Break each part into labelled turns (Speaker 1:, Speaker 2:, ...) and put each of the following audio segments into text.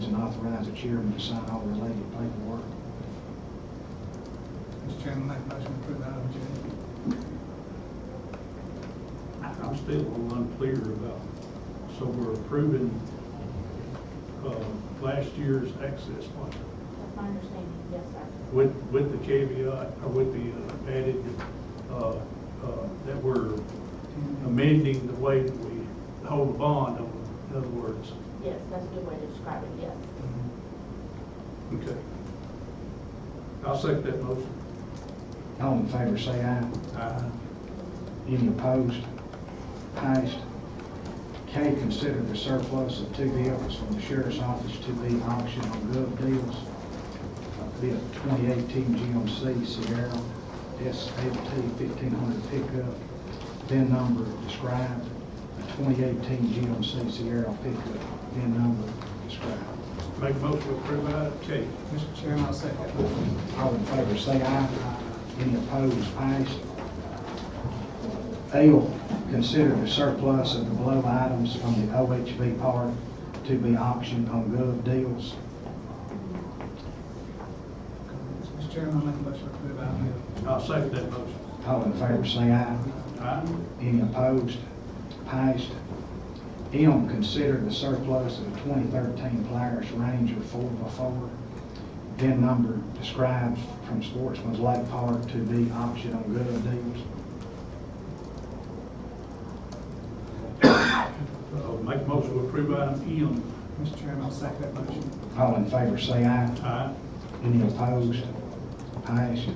Speaker 1: and authorize the chairman to sign all related paperwork.
Speaker 2: Mr. Chairman, make a motion to approve item J.
Speaker 3: I'm still a little unclear about, so we're approving, uh, last year's access plan
Speaker 4: That's my understanding, yes, sir.
Speaker 3: with, with the caveat, or with the uh, added, uh, uh, that we're amending the way that we hold the bond, in other words.
Speaker 4: Yes, that's a good way to describe it, yes.
Speaker 3: Okay. I'll second that motion.
Speaker 1: All in favor, say aye.
Speaker 3: Aye.
Speaker 1: Any opposed? Passed. K, consider the surplus of two vehicles from the sheriff's office to be auctioned on Gov. Deals. Be a 2018 GMC Sierra SLT 1500 pickup, VIN number described. A 2018 GMC Sierra pickup, VIN number described.
Speaker 3: Make a motion to approve item K.
Speaker 2: Mr. Chairman, I'll second that motion.
Speaker 1: All in favor, say aye. Any opposed, passed. L, consider the surplus of the below items from the OHV park to be auctioned on Gov. Deals.
Speaker 2: Mr. Chairman, make a motion to approve item
Speaker 3: I'll second that motion.
Speaker 1: All in favor, say aye.
Speaker 3: Aye.
Speaker 1: Any opposed, passed. M, consider the surplus of the 2013 Polaris Ranger 4x4, VIN number described from Sportsman's Lake Park to be auctioned on Gov. Deals.
Speaker 3: Uh, Make a motion to approve item
Speaker 2: L. Mr. Chairman, I'll second that motion.
Speaker 1: All in favor, say aye.
Speaker 3: M. Aye.
Speaker 1: Any opposed? Passed.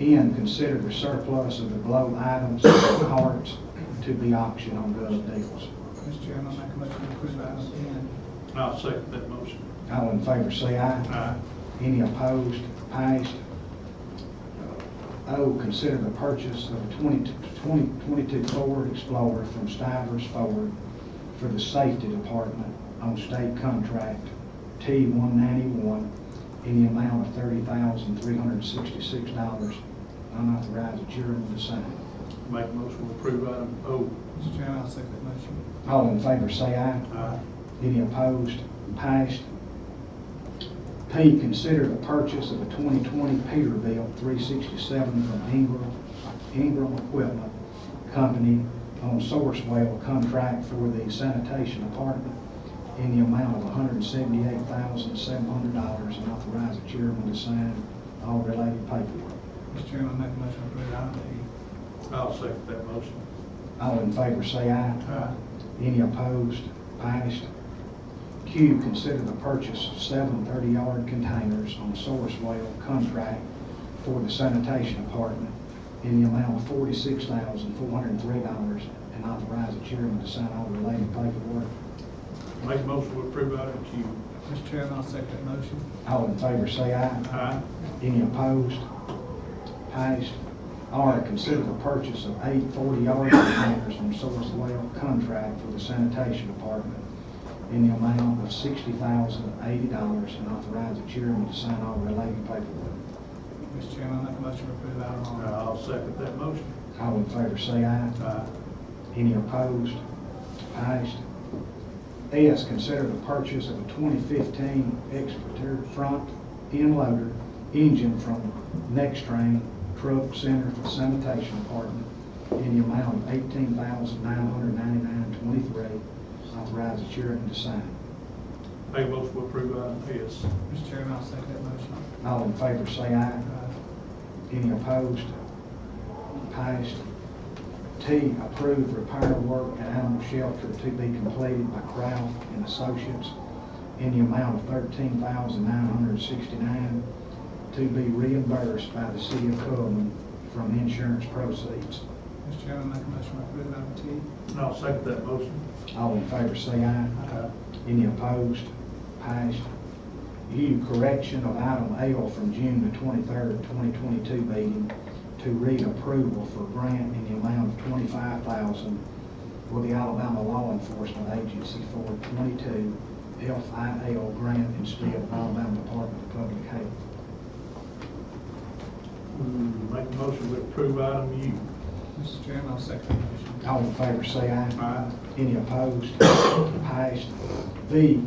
Speaker 1: N, consider the surplus of the below items and cards to be auctioned on Gov. Deals.
Speaker 2: Mr. Chairman, make a motion to approve item N.
Speaker 3: I'll second that motion.
Speaker 1: All in favor, say aye.
Speaker 3: Aye.
Speaker 1: Any opposed? Passed. O, oh, consider the purchase of a 20 2022 Ford Explorer from Stivers Ford for the Safety Department on state contract T-191 in the amount of $30,366. Unauthorized chairman to sign.
Speaker 3: Make a motion to approve item O.
Speaker 2: Mr. Chairman, I'll second that motion.
Speaker 1: All in favor, say aye.
Speaker 3: Aye.
Speaker 1: Any opposed? Passed. P, consider the purchase of a 2020 Peterbilt 367 from Ingram, Ingram Equipment Company on Sourcewell contract for the sanitation department in the amount of $178,700 and authorize the chairman to sign all related paperwork.
Speaker 2: Mr. Chairman, make a motion to approve item
Speaker 3: I'll second that motion.
Speaker 1: All in favor, say aye.
Speaker 2: Uh,
Speaker 3: Aye.
Speaker 1: Any opposed? Passed. Q, consider the purchase of seven 30-yard containers on Sourcewell contract for the sanitation department in the amount of $46,403 and authorize the chairman to sign all related paperwork.
Speaker 3: Make a motion to approve item Q.
Speaker 2: E. Mr. Chairman, I'll second that motion.
Speaker 1: All in favor, say aye.
Speaker 3: Aye.
Speaker 1: Any opposed? Passed. R, consider the purchase of eight 40-yard containers from Sourcewell contract for the sanitation department in the amount of $60,080 and authorize the chairman to sign all related paperwork.
Speaker 2: Mr. Chairman, make a motion to approve item R.
Speaker 3: I'll second that motion.
Speaker 1: All in favor, say aye.
Speaker 3: Aye.
Speaker 1: Any opposed? Passed. S, consider the purchase of a 2015 Exeter front end loader engine from Next Train Truck Center for Sanitation Department in the amount of $18,999.23. Authorize the chairman to sign.
Speaker 3: Make a motion to approve item S.
Speaker 2: Mr. Chairman, I'll second that motion. Uh,
Speaker 1: All in favor, say aye. Any opposed? Passed. T, approve repair work at animal shelter to be completed by Kraft and Associates in the amount of thirteen thousand nine hundred sixty-nine to be reimbursed by the city of Coleman from insurance proceeds.
Speaker 2: Mr. Chairman, make a motion to approve item T.
Speaker 3: I'll second that motion.
Speaker 1: All in favor, say aye.
Speaker 2: Uh,
Speaker 3: Aye.
Speaker 1: Any opposed? Passed. U, correction of item L from June the twenty-third, twenty twenty-two meeting to read approval for grant in the amount of twenty-five thousand for the Alabama Law Enforcement Agency for twenty-two FIL grant instead of Alabama Department of Public Health.
Speaker 3: Mm, Make a motion to approve item U.
Speaker 2: Mr. Chairman, I'll second that motion.
Speaker 1: All in favor, say aye.
Speaker 3: Aye.
Speaker 1: Any opposed? Passed. V,